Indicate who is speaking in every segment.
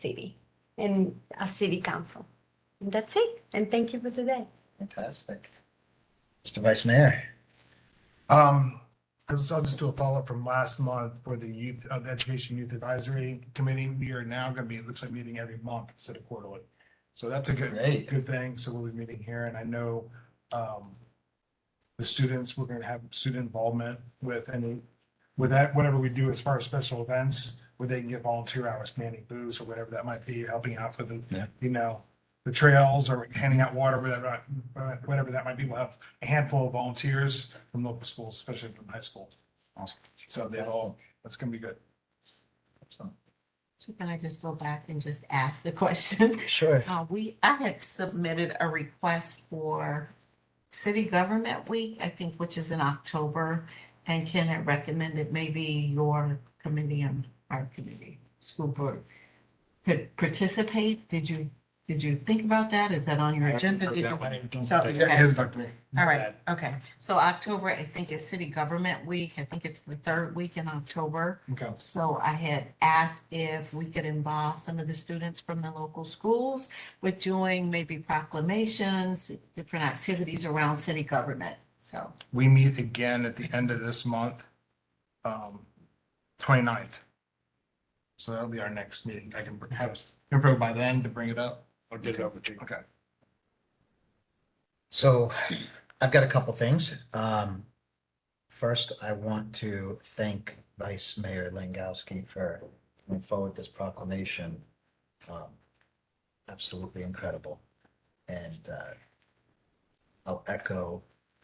Speaker 1: city and a city council. And that's it. And thank you for today.
Speaker 2: Fantastic. Mr. Vice Mayor,
Speaker 3: Um, this- I'll just do a follow-up from last month for the youth, uh, the Education Youth Advisory Committee. We are now gonna be, it looks like meeting every month instead of quarterly. So that's a good,
Speaker 2: Great.
Speaker 3: good thing. So we'll be meeting here and I know, um, the students, we're gonna have student involvement with any, with that, whatever we do as far as special events, where they can get volunteer hours, manning booths or whatever that might be, helping out for the,
Speaker 2: Yeah.
Speaker 3: you know, the trails or handing out water, whatever, whatever that might be. We'll have a handful of volunteers from local schools, especially from high school.
Speaker 2: Awesome.
Speaker 3: So they all, that's gonna be good.
Speaker 2: So,
Speaker 4: So Can I just go back and just ask the question?
Speaker 2: sure.
Speaker 4: Uh, we, I had submitted a request for City Government Week, I think, which is in October. And Ken had recommended maybe your committee and our committee, school board, could participate. Did you, did you think about that? Is that on your agenda? Did you- So,
Speaker 3: Yeah,
Speaker 4: okay.
Speaker 3: his back to me.
Speaker 4: All right, okay. So October, I think is City Government Week. I think it's the third week in October.
Speaker 3: Okay.
Speaker 4: So I had asked if we could involve some of the students from the local schools with doing maybe proclamations, different activities around city government. So,
Speaker 3: We meet again at the end of this month, um, 29th. So that'll be our next meeting. I can have info by then to bring it up. Or did it over to you. Okay.
Speaker 2: So I've got a couple things. Um, first, I want to thank Vice Mayor Langowski for bringing forward this proclamation. Um, Absolutely incredible. And, uh, I'll echo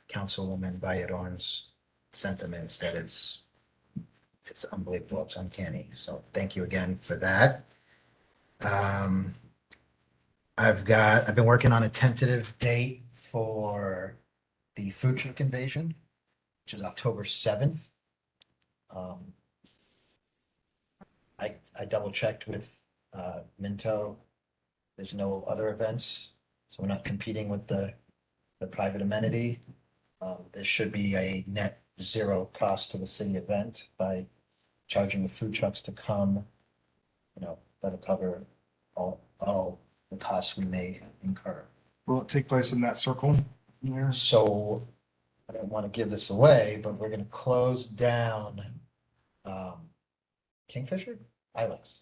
Speaker 2: Councilwoman Vallador's sentiments that it's, it's unbelievable. It's uncanny. So thank you again for that. Um, I've got, I've been working on a tentative date for the food truck invasion, which is October seventh. Um, I, I double checked with, uh, Minto. There's no other events, so we're not competing with the, the private amenity. Um, this should be a net zero cost to the city event by charging the food trucks to come. You know, that'll cover all, all the costs we may incur.
Speaker 3: Will it take place in that circle? Yes.
Speaker 2: So I don't want to give this away, but we're gonna close down um Kingfisher, Ilex,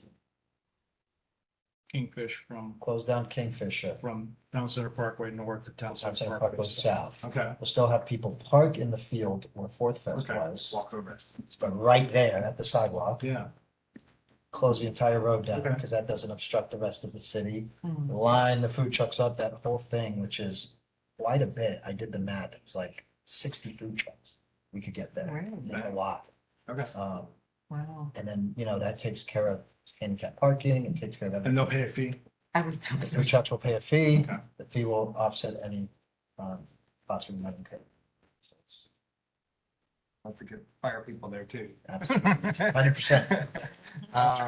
Speaker 5: Kingfish from,
Speaker 2: close down Kingfisher.
Speaker 5: from Town Center Parkway north to Town Center
Speaker 2: South Center Park
Speaker 5: Parkway.
Speaker 2: goes south.
Speaker 3: Okay.
Speaker 2: We'll still have people park in the field where Fourth Fest
Speaker 3: Okay.
Speaker 2: was,
Speaker 3: Walk over.
Speaker 2: but right there at the sidewalk,
Speaker 3: Yeah.
Speaker 2: close the entire road down
Speaker 3: Okay.
Speaker 2: because that doesn't obstruct the rest of the city.
Speaker 4: hmm,
Speaker 2: Line the food trucks up, that whole thing, which is quite a bit. I did the math. It was like sixty food trucks. We could get there.
Speaker 4: really?
Speaker 2: That's a lot.
Speaker 3: Okay.
Speaker 2: Um,
Speaker 4: wow.
Speaker 2: And then, you know, that takes care of handicap parking and takes care of
Speaker 3: And
Speaker 2: everything.
Speaker 3: they'll pay a fee.
Speaker 4: I was,
Speaker 2: The food trucks will pay a fee.
Speaker 3: Okay.
Speaker 2: The fee will offset any um, cost we might incur. So it's
Speaker 3: Don't forget fire people there too. Uh,
Speaker 2: Hundred percent.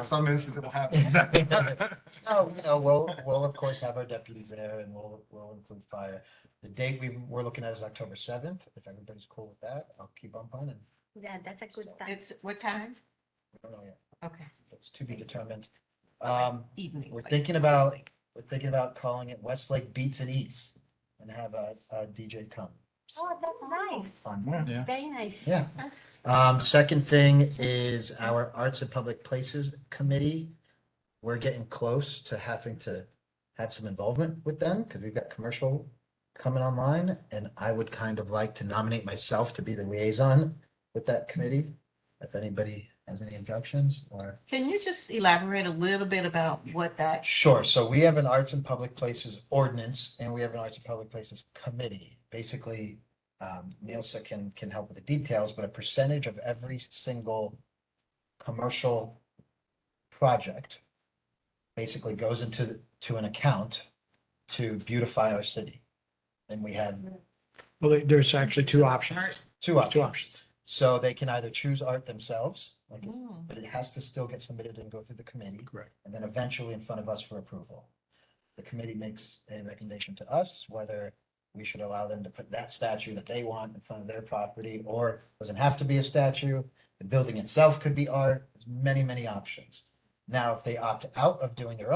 Speaker 3: Some incident will happen.
Speaker 2: No, no, we'll, we'll of course have our deputy there and we'll, we'll include fire. The date we were looking at is October seventh. If everybody's cool with that, I'll keep on planning.
Speaker 1: Yeah, that's a good time.
Speaker 4: it's, what time?
Speaker 2: We don't know yet.
Speaker 4: Okay,
Speaker 2: It's to be determined.
Speaker 4: Okay.
Speaker 2: Um,
Speaker 4: evening.
Speaker 2: We're
Speaker 4: like-
Speaker 2: thinking about, we're thinking about calling it Westlake Beats and Eats and have uh, a, a DJ come.
Speaker 1: Oh, that's nice.
Speaker 2: Fun.
Speaker 5: Yeah.
Speaker 1: Very nice.
Speaker 2: Yeah.
Speaker 1: That's
Speaker 2: Um, second thing is our Arts and Public Places Committee. We're getting close to having to have some involvement with them because we've got commercial coming online. And I would kind of like to nominate myself to be the liaison with that committee. If anybody has any objections or.
Speaker 4: Can you just elaborate a little bit about what that,
Speaker 2: Sure. So we have an arts and public places ordinance and we have an arts and public places committee. Basically, um, Nielsa can, can help with the details, but a percentage of every single commercial project basically goes into, the- to an account to beautify our city. And we have
Speaker 5: Well, there- there's actually two options,
Speaker 2: two
Speaker 5: two
Speaker 2: options.
Speaker 5: options.
Speaker 2: So they can either choose art themselves, like,
Speaker 4: Hmm,
Speaker 2: but it has to still get submitted and go through the committee
Speaker 5: Correct.
Speaker 2: and then eventually in front of us for approval. The committee makes a recommendation to us whether we should allow them to put that statue that they want in front of their property, or doesn't have to be a statue. The building itself could be art, There's many, many options. Now, if they opt out of doing their own.